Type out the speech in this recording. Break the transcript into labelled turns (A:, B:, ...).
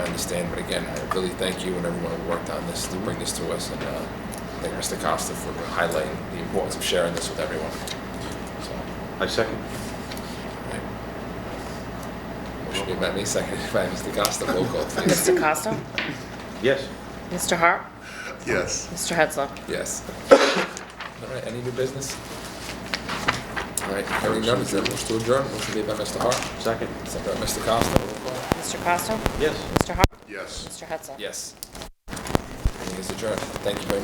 A: understand. But again, I really thank you and everyone who worked on this to bring this to us, and uh, thank Mr. Costa for highlighting the importance of sharing this with everyone. So,
B: I second.
A: right. Motion made by me, seconded by Mr. Costa. Roll call, please.
C: Mr. Costa?
B: Yes.
C: Mr. Hart?
D: Yes.
C: Mr. Hetzler?
A: Yes. All right, any new business? All right, hearing none, is there a motion to adjourn? Motion made by Mr. Hart,
B: Second.
A: seconded by Mr. Costa. Roll call.
C: Mr. Costa?
B: Yes.
C: Mr. Hart?
D: Yes.
C: Mr. Hetzler?
A: Yes. Meeting is adjourned. Thank you very much.